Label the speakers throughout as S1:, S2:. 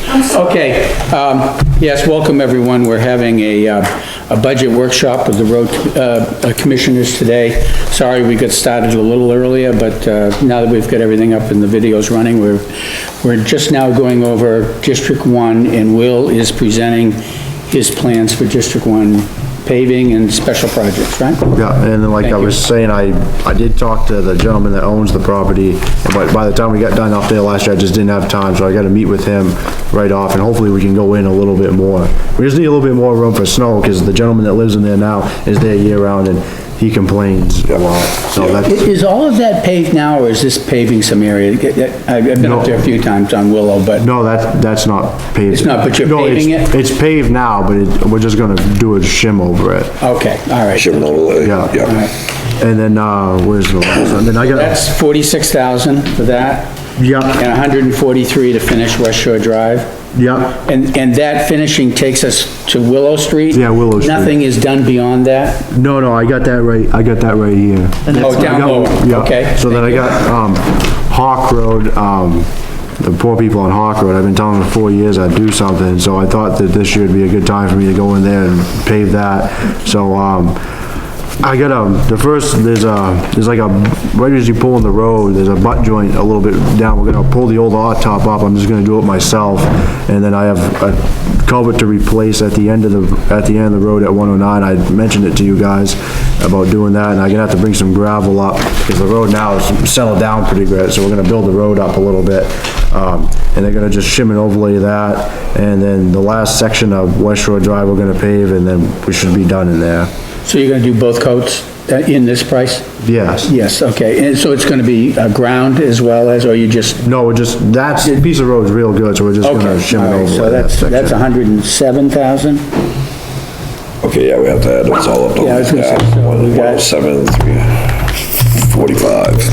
S1: Finance.
S2: Okay, um, yes, welcome everyone. We're having a, uh, a budget workshop with the road, uh, commissioners today. Sorry we got started a little earlier, but, uh, now that we've got everything up and the video's running, we're, we're just now going over District One and Will is presenting his plans for District One paving and special projects, right?
S3: Yeah, and then like I
S2: Thank you.
S3: was saying, I, I did talk to the gentleman that owns the property, but by the time we got done up there last year, I just didn't have time, so I gotta meet with him right off, and hopefully we can go in a little bit more. We just need a little bit more room for snow, because the gentleman that lives in there now is there year-round, and he complains a lot, so
S2: I-
S3: that's,
S2: Is all of that paved now, or is this paving some area? I've I've been up there a few times on Willow, but,
S3: no, that, that's not paved.
S2: It's not, but you're
S3: No, it's-
S2: paving it?
S3: It's paved now, but it, we're just gonna do a shim over it,
S2: okay, all right.
S1: Jim Nolan,
S3: Yeah.
S2: All
S1: yeah.
S2: right.
S3: and then, uh, where's the last one? Then I got,
S2: That's 46,000 for that.
S3: Yeah.
S2: And 143 to finish West Shore Drive.
S3: yeah,
S2: And, and that finishing takes us to Willow Street?
S3: Yeah, Willow Street.
S2: Nothing is done beyond that?
S3: no, no, I got that right, I got that right here.
S2: Oh,
S3: I
S2: down
S3: got- yeah.
S2: lower, okay.
S3: So then I got, um, Hawk Road, um, the poor people on Hawk Road, I've been telling them for four years I'd do something, so I thought that this year would be a good time for me to go in there and pave that, so, um, I got, um, the first, there's a, there's like a, right as you pull in the road, there's a butt joint a little bit down, we're gonna pull the old hot top up, I'm just gonna do it myself, and then I have a culvert to replace at the end of the, at the end of the road at one oh nine, I mentioned it to you guys about doing that, and I'm gonna have to bring some gravel up, because the road now is settled down pretty good, so we're gonna build the road up a little bit. Um, and they're gonna just shim and overlay that, and then the last section of West Shore Drive, we're gonna pave, and then we should be done in there.
S2: So you're gonna do both coats uh, in this price?
S3: Yes.
S2: Yes, okay. And so it's gonna be uh, ground as well as, or you just?
S3: No, we're just, that's, the piece of road's real good, so we're just
S2: Okay,
S3: gonna shim
S2: all
S3: it
S2: right,
S3: over
S2: So
S3: that
S2: that's, that's
S3: section.
S2: 107,000?
S1: Okay, yeah, we have to add those all up.
S2: Yeah, I was gonna say, so we got-
S1: 107, 45.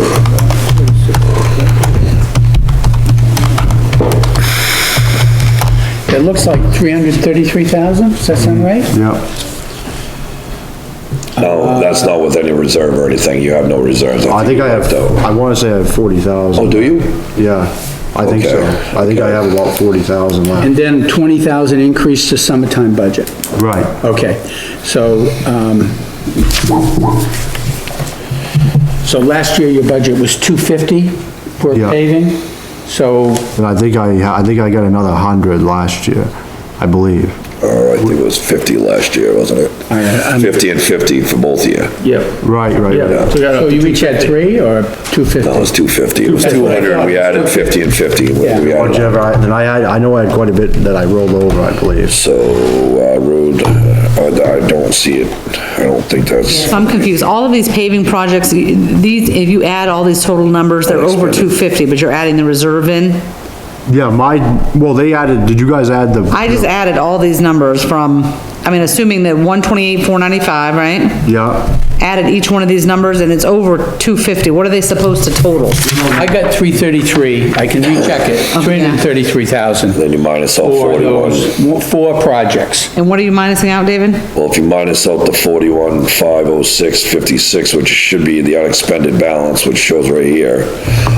S2: It looks like 333,000, does that sound right?
S3: Yep,
S1: No, that's not with any reserve or anything, you have no reserves.
S3: I think
S1: you
S3: I have,
S1: though.
S3: I wanna say I have forty
S1: Oh,
S3: thousand,
S1: do you?
S3: yeah, I think so.
S1: Okay,
S3: I think I
S1: okay.
S3: have about forty thousand left.
S2: And then 20,000 increase to summertime budget.
S3: Right.
S2: Okay, so, um, so last year your budget was 250 for
S3: Yeah.
S2: paving, so,
S3: And I think I, I think I got another hundred last year, I believe.
S1: Or Oh, I think it was 50 last year, wasn't it?
S2: I- I'm-
S1: 50 and 50 for both of you.
S2: yeah.
S3: Right, right,
S1: Yeah.
S2: So you each had three or
S1: No, it
S2: 250?
S1: was 250, it was
S2: 250.
S1: 200, and we added 50 and 50. We- we
S2: Yeah.
S1: added up.
S3: whichever, Oh, I- and I had, I know I had quite a bit that I rolled over, I believe.
S1: So, uh, road, I I don't see it, I don't think that's,
S4: So I'm confused. All of these paving projects, these, if you add all these total numbers, they're over two fifty, but you're adding the reserve in?
S3: Yeah, my, well, they added, did you guys add the?
S4: I just added all these numbers from, I mean, assuming that one twenty-eight, four ninety-five, right?
S3: Yeah,
S4: Added each one of these numbers and it's over two fifty. What are they supposed to total?
S2: I got 333, I can recheck it, 333,000
S1: then you minus out
S2: for
S1: 41.
S2: those, four projects.
S4: And what are you minusing out, David?
S1: Well, if you minus out the 41, 506, 56, which should be the unexpended balance, which shows right here,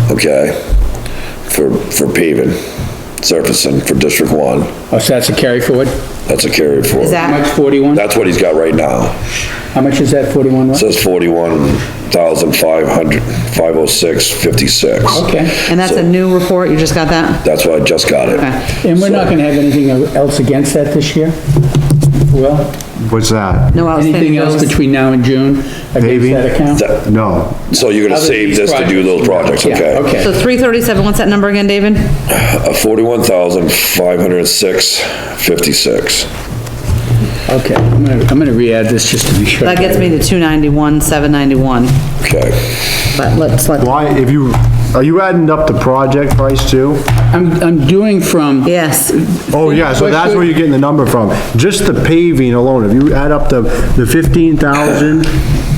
S1: okay? For, for paving, surfacing for District 1,
S2: Oh, so that's a carry forward?
S1: that's a carry forward.
S4: Is
S2: How
S4: that-
S2: much, 41?
S1: That's what he's got right now.
S2: How much is that, 41 what?
S1: Says 41,500, 506, 56.
S2: Okay,
S4: And that's a new report, you just got that?
S1: That's why I just got it.
S4: Okay.
S2: and we're not gonna have anything else against that this year? Well?
S3: what's that?
S4: No outstanding
S2: Anything else
S4: bills?
S2: between now and June against
S3: Paving?
S2: that account?
S1: That-
S3: No,
S1: So you're gonna
S2: Other
S1: save
S2: these
S1: this to do those projects,
S2: Yeah,
S1: okay?
S4: So
S2: Okay,
S4: three thirty-seven, what's that number again, David?
S1: Uh, 41,506, 56.
S2: okay. I'm gonna, I'm gonna re-add this just to be sure.
S4: That gets me to two ninety-one, seven ninety-one,
S1: Okay.
S4: but let's let.
S3: why, if you, are you adding up the project price too?
S2: I'm, I'm doing from,
S4: Yes,
S3: Oh, yeah, so that's where you're getting the number from. Just the paving alone, if you add up the, the fifteen thousand,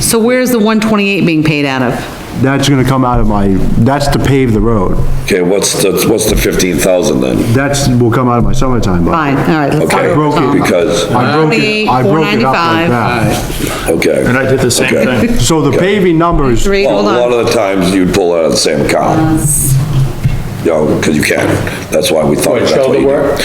S4: so where's the one twenty-eight being paid out of?
S3: that's gonna come out of my, that's to pave the road.
S1: Okay, what's the, what's the fifteen thousand then?
S3: That's, will come out of my summertime budget.
S4: Fine, all right. let's
S1: Okay,
S4: start
S3: broke it
S4: over, Tom.
S1: because,
S3: I broke it, I broke it up like
S4: 28,495.
S3: that.
S1: okay.
S5: I did the same
S1: Okay.
S5: thing.
S3: So the paving numbers,
S4: Three,
S1: Well,
S4: hold
S1: a lot
S4: on.
S1: of the times you'd pull out of the same account. You know, 'cause you can. That's why we thought.
S2: What,
S1: that's
S2: shoulder
S1: what you do.
S2: work?